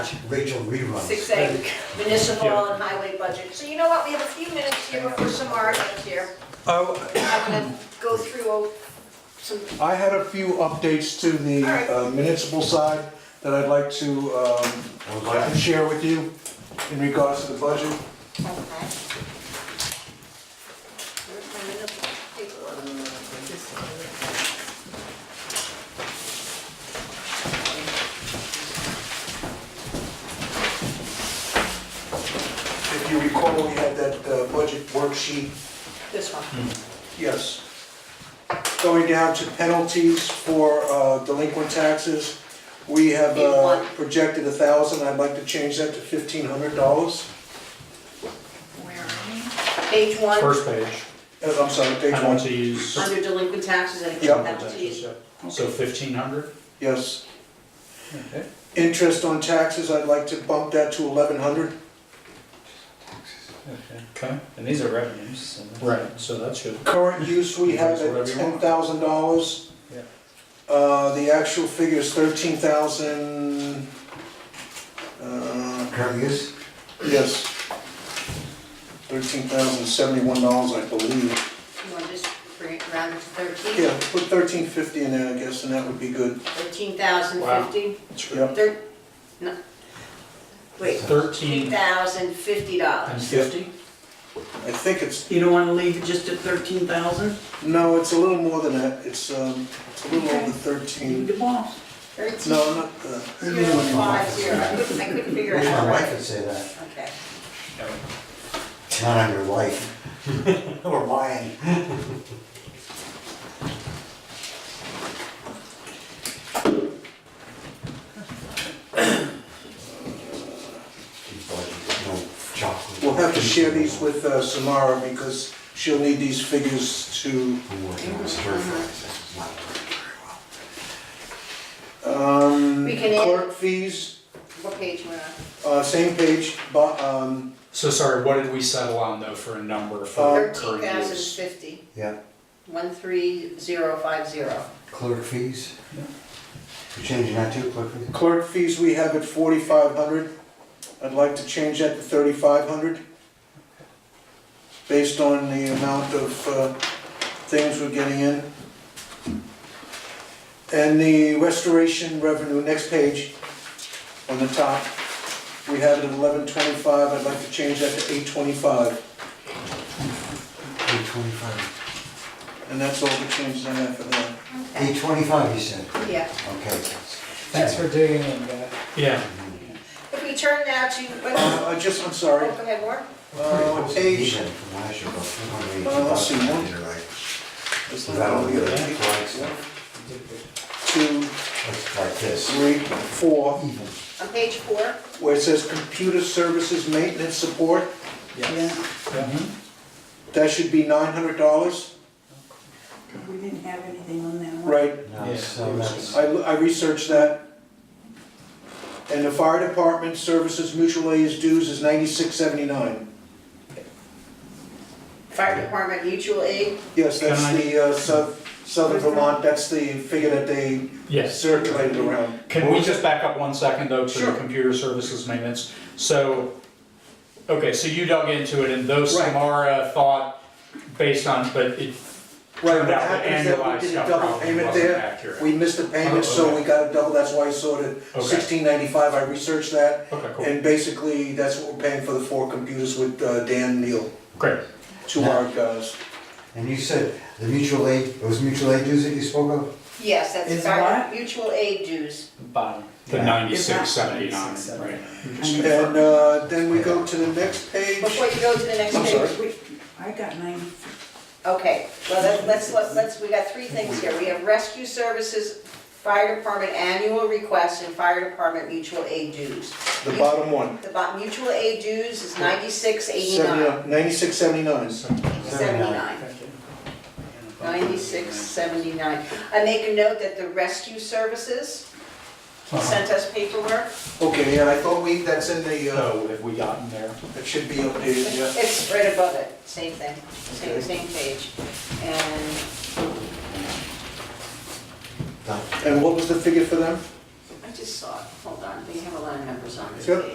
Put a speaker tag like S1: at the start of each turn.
S1: watch Rachel reruns.
S2: Six A, municipal and highway budget. So you know what, we have a few minutes here before some arguments here.
S3: Oh,
S2: I'm gonna go through some,
S3: I had a few updates to the
S2: All right.
S3: uh, municipal side that I'd like to um,
S1: I would like to
S3: share with you in regards to the budget.
S2: okay. Where's my municipal paperwork?
S3: If you recall, we had that uh, budget worksheet
S2: This one.
S3: Yes. Going down to penalties for uh, delinquent taxes, we have
S2: Big
S3: uh,
S2: one.
S3: projected a thousand, I'd like to change that to fifteen hundred dollars.
S2: Page one,
S4: First page,
S3: Uh, I'm sorry, page one,
S4: penalties.
S2: under delinquent taxes and
S3: Yeah.
S2: penalties.
S4: So fifteen hundred?
S3: yes. Interest on taxes, I'd like to bump that to eleven hundred.
S4: Okay, and these are revenues. Right. So that should,
S3: Current use we have at
S4: Whatever you
S3: ten
S4: want.
S3: thousand dollars.
S4: Yeah.
S3: Uh, the actual figure is thirteen thousand, uh,
S1: Current use?
S3: Yes. Thirteen thousand seventy-one dollars, I believe.
S2: You want to just bring it round to thirteen?
S3: Yeah, put thirteen fifty in there, I guess, and that would be good.
S2: Thirteen thousand fifty?
S3: Yep.
S2: Thir, no. Wait, thirteen
S4: thirteen
S2: thousand fifty
S4: and
S2: dollars.
S4: fifty?
S3: I think it's,
S5: You don't wanna leave it just at thirteen thousand?
S3: no, it's a little more than that. It's, um, it's a little over thirteen.
S5: the boss.
S2: Thirteen
S3: No, not, uh,
S2: zero five zero. I couldn't, I couldn't figure
S1: Wish
S2: it out.
S1: my wife
S2: right.
S1: would say that.
S2: Okay.
S1: Not on your wife. Or mine. She's like, no chocolate.
S3: we'll have to share these with, uh, Samara because she'll need these figures to,
S1: I'm working on stir fries, that's not working very well.
S3: um,
S2: We can add-
S3: clerk fees,
S2: What page we're on?
S3: uh, same page, but, um,
S4: So sorry, what did we settle on though for a number
S3: Uh,
S4: for
S2: Thirteen
S4: current
S2: thousand
S4: use?
S2: fifty,
S1: Yeah,
S2: one three zero five zero.
S1: clerk fees?
S4: Yeah.
S1: You're changing that too, clerk fees?
S3: clerk fees we have at forty-five hundred. I'd like to change that to thirty-five hundred, based on the amount of uh, things we're getting in. And the restoration revenue, next page, on the top, we have it at eleven twenty-five, I'd like to change that to eight twenty-five.
S1: Eight twenty-five.
S3: And that's all the changes I have for that.
S1: Eight twenty-five, you said?
S2: Yeah.
S1: Okay.
S6: Thanks for digging in, guys.
S4: Yeah,
S2: If we turn now to, wait, oh,
S3: Uh, I just, I'm
S2: go
S3: sorry,
S2: ahead, Warren.
S3: uh, page,
S1: Even from last year, about four hundred eighty
S3: Uh, let's see, one.
S1: bucks.
S3: is
S1: Without all the other flags,
S3: two,
S1: that's like this,
S3: three, four,
S1: even.
S2: On page four,
S3: where it says computer services maintenance support,
S5: Yeah,
S3: Mm-hmm. that should be nine hundred dollars.
S5: we didn't have anything on that one.
S3: Right,
S1: No,
S4: Yeah.
S1: so that's,
S3: I, I researched that. And the fire department services mutual aid dues is ninety-six seventy-nine.
S2: fire department mutual aid,
S3: Yes, that's
S4: Can I-
S3: the, uh, South, Southern Vermont, that's the figure that they
S4: yes.
S3: circulated around.
S4: Can we just back up one second though to the
S3: Sure.
S4: computer services maintenance? So, okay, so you dug into it and though
S3: Right.
S4: Samara thought based on, but it
S3: Right,
S4: turned
S3: what
S4: out that
S3: happened is that we
S4: annualized
S3: did a
S4: stuff
S3: double
S4: probably
S3: payment
S4: wasn't
S3: there.
S4: accurate. Oh,
S3: We missed a payment, so
S4: okay.
S3: we got a double, that's why I saw it at
S4: Okay.
S3: sixteen ninety-five, I researched that.
S4: Okay, cool,
S3: And basically, that's what we're paying for the four computers with uh, Dan Neal.
S4: great.
S3: two hard guys.
S1: and you said the mutual aid, it was mutual aid dues that you spoke of?
S2: yes, that's
S5: Is
S2: fire,
S5: what?
S2: mutual aid dues.
S4: Bottom. The
S1: Yeah.
S4: ninety-six seventy-nine,
S5: 96,
S4: right.
S3: And uh, then we go to the next page.
S2: Before you go to the next
S3: I'm sorry.
S2: page, we,
S5: I got nine,
S2: okay, well, let- let's, let's, let's, we got three things here. We have rescue services, fire department annual requests, and fire department mutual aid dues.
S3: The bottom one,
S2: The bo- mutual aid dues is ninety-six eighty-nine,
S3: 79 96, 79.
S2: seventy-nine. Ninety-six seventy-nine. I make a note that the rescue services sent us paperwork.
S3: Okay, yeah, I thought we, that's in the, uh,
S4: So have we gotten there?
S3: it should be updated, yeah.
S2: It's right above it, same thing, same,
S3: Okay.
S2: same page. And
S1: Done.
S3: And what was the figure for them?
S2: I I just saw it, hold on, we have a lot of numbers on this
S3: Yep.
S2: page.